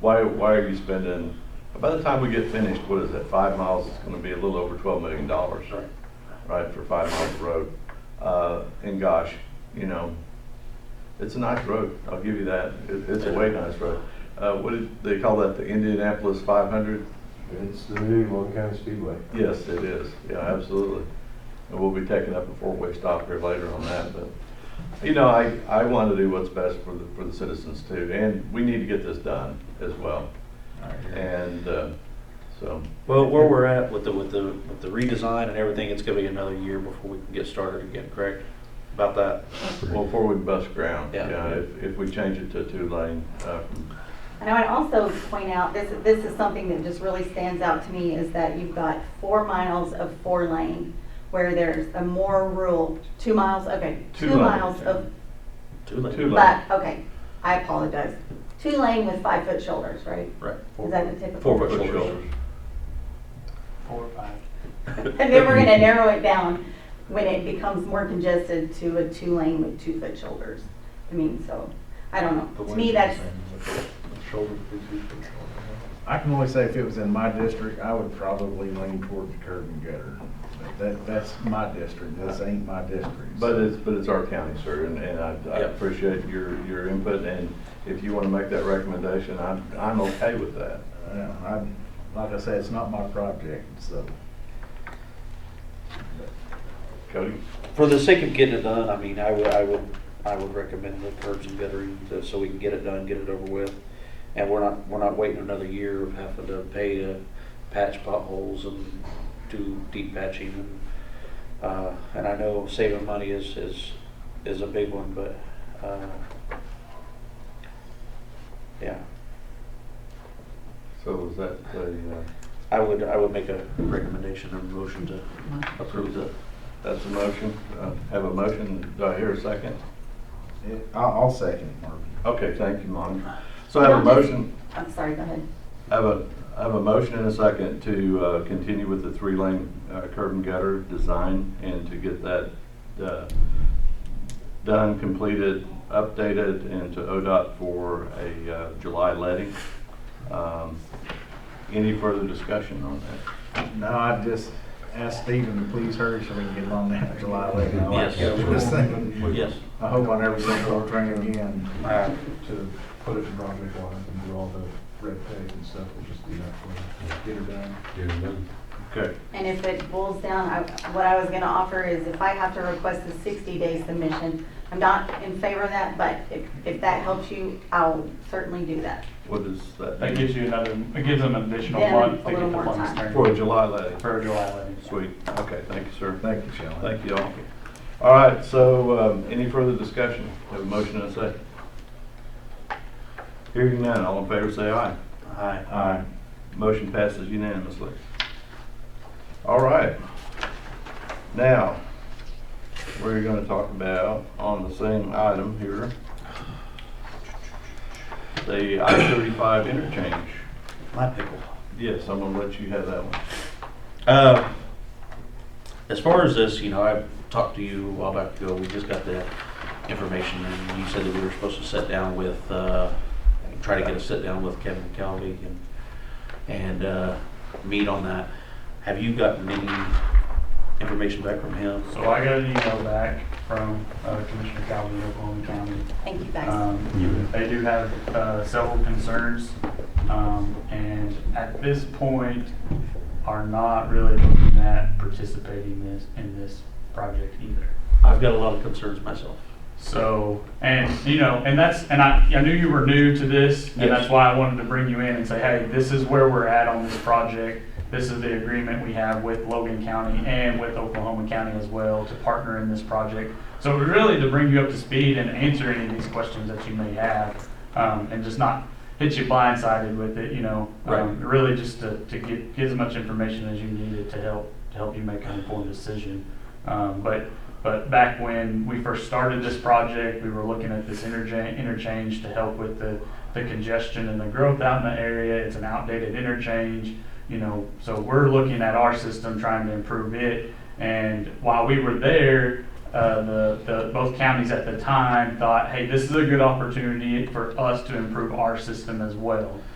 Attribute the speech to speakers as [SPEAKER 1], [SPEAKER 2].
[SPEAKER 1] why, why are you spending, by the time we get finished, what is that, five miles, it's gonna be a little over twelve million dollars.
[SPEAKER 2] Right.
[SPEAKER 1] Right, for five miles of road. Uh, and gosh, you know, it's a nice road, I'll give you that, it, it's a way nice road. Uh, what did, they call that the Indianapolis five hundred?
[SPEAKER 3] It's the new Long County Speedway.
[SPEAKER 1] Yes, it is, yeah, absolutely. And we'll be taking up a four-way stop here later on that, but, you know, I, I want to do what's best for the, for the citizens too, and we need to get this done as well. And, uh, so,
[SPEAKER 2] Well, where we're at with the, with the, with the redesign and everything, it's gonna be another year before we can get started again, correct? About that?
[SPEAKER 1] well, before we bust ground,
[SPEAKER 2] Yeah.
[SPEAKER 1] yeah, if, if we change it to two-lane, uh, from-
[SPEAKER 4] And I would also point out, this, this is something that just really stands out to me, is that you've got four miles of four lane, where there's a more rural, two miles, okay,
[SPEAKER 1] Two
[SPEAKER 4] two
[SPEAKER 1] lane.
[SPEAKER 4] miles of,
[SPEAKER 2] Too late.
[SPEAKER 1] Two lane.
[SPEAKER 4] but, okay, I apologize. Two lane with five foot shoulders, right?
[SPEAKER 2] Right.
[SPEAKER 4] Is that the typical?
[SPEAKER 2] Four foot
[SPEAKER 1] Foot
[SPEAKER 2] shoulders.
[SPEAKER 1] shoulders.
[SPEAKER 5] Four or five.
[SPEAKER 4] And then we're gonna narrow it down when it becomes more congested to a two lane with two foot shoulders. I mean, so, I don't know, to me, that's,
[SPEAKER 6] I can only say if it was in my district, I would probably lean toward the curb and gutter. But That, that's my district, this ain't my district.
[SPEAKER 1] But it's, but it's our county, sir, and, and I, I
[SPEAKER 2] Yeah.
[SPEAKER 1] appreciate your, your input, and if you want to make that recommendation, I'm, I'm okay with that.
[SPEAKER 6] Yeah, I, like I said, it's not my project, so.
[SPEAKER 1] Cody?
[SPEAKER 2] For the sake of getting it done, I mean, I would, I would, I would recommend the curbs and guttering, to- so we can get it done, get it over with. And we're not, we're not waiting another year of having to pay to patch potholes and do deep patching. and, Uh, and I know saving money is, is, is a big one, but, uh, yeah,
[SPEAKER 1] So is that the, uh,
[SPEAKER 2] I would, I would make a recommendation or motion to approve the
[SPEAKER 1] That's a motion. Uh, Have a motion. Do I hear a second?
[SPEAKER 6] It- I'll, I'll second it, Marvin.
[SPEAKER 1] Okay, thank you, Monica. So I have a motion,
[SPEAKER 4] I'm sorry, go ahead.
[SPEAKER 1] I have a, I have a motion and a second to uh, continue with the three-lane uh, curb and gutter design and to get that uh, done, completed, updated, and to ODOT for a uh, July letting. Um, Any further discussion on that?
[SPEAKER 6] No, I just asked Stephen to please hurry so we can get on that July eleventh. I like
[SPEAKER 2] Yes.
[SPEAKER 6] this thing.
[SPEAKER 2] Yes.
[SPEAKER 6] I hope I never see Gold Train again.
[SPEAKER 2] Uh,
[SPEAKER 3] To put it in project line and do all the red tape and stuff, we'll just do that for you. Get her done.
[SPEAKER 1] Okay,
[SPEAKER 4] And if it boils down, I- what I was going to offer is if I have to request a 60-day submission, I'm not in favor of that, but if, if that helps you, I'll certainly do that.
[SPEAKER 1] what is that?
[SPEAKER 5] That gives you another, it gives them an additional
[SPEAKER 4] Then
[SPEAKER 5] month
[SPEAKER 4] a
[SPEAKER 5] to get
[SPEAKER 4] little
[SPEAKER 5] the
[SPEAKER 4] more
[SPEAKER 5] funds
[SPEAKER 4] time.
[SPEAKER 5] turned.
[SPEAKER 1] For a July letting.
[SPEAKER 5] For July levy.
[SPEAKER 1] Sweet. Okay, thank you, sir.
[SPEAKER 6] Thank you, Shelley.
[SPEAKER 1] Thank you all. All right, so um, any further discussion? Have a motion and a second. Hearing none, all in favor say aye.
[SPEAKER 2] aye.
[SPEAKER 1] Aye. Motion passes unanimously. All right. Now, we're going to talk about, on the same item here, the I-35 interchange.
[SPEAKER 2] My pickle.
[SPEAKER 1] Yes, I'm going to let you have that one.
[SPEAKER 2] Uh, as far as this, you know, I talked to you a while back ago. We just got the information, and you said that we were supposed to sit down with, uh, try to get a sit down with Kevin Calvi and and uh, meet on that. Have you gotten any information back from him?
[SPEAKER 5] So I got an email back from uh, Commissioner Calvin, Oklahoma County.
[SPEAKER 4] Thank you, guys.
[SPEAKER 5] Um, They do have uh, several concerns, um, and at this point, are not really looking at participating this, in this project either.
[SPEAKER 2] I've got a lot of concerns myself.
[SPEAKER 5] So, and, you know, and that's, and I, I knew you were new to this, and
[SPEAKER 2] Yes.
[SPEAKER 5] that's why I wanted to bring you in and say, hey, this is where we're at on this project. This is the agreement we have with Logan County and with Oklahoma County as well to partner in this project. So really to bring you up to speed and answer any of these questions that you may have, um, and just not hit you blindsided with it, you know?
[SPEAKER 2] Right.
[SPEAKER 5] Um, Really just to, to get, get as much information as you needed to help, to help you make an informed decision. Um, but, but back when we first started this project, we were looking at this interchange, interchange to help with the, the congestion and the growth out in the area. It's an outdated interchange, you know, so we're looking at our system, trying to improve it. And while we were there, uh, the, the, both counties at the time thought, hey, this is a good opportunity for us to improve our system as well.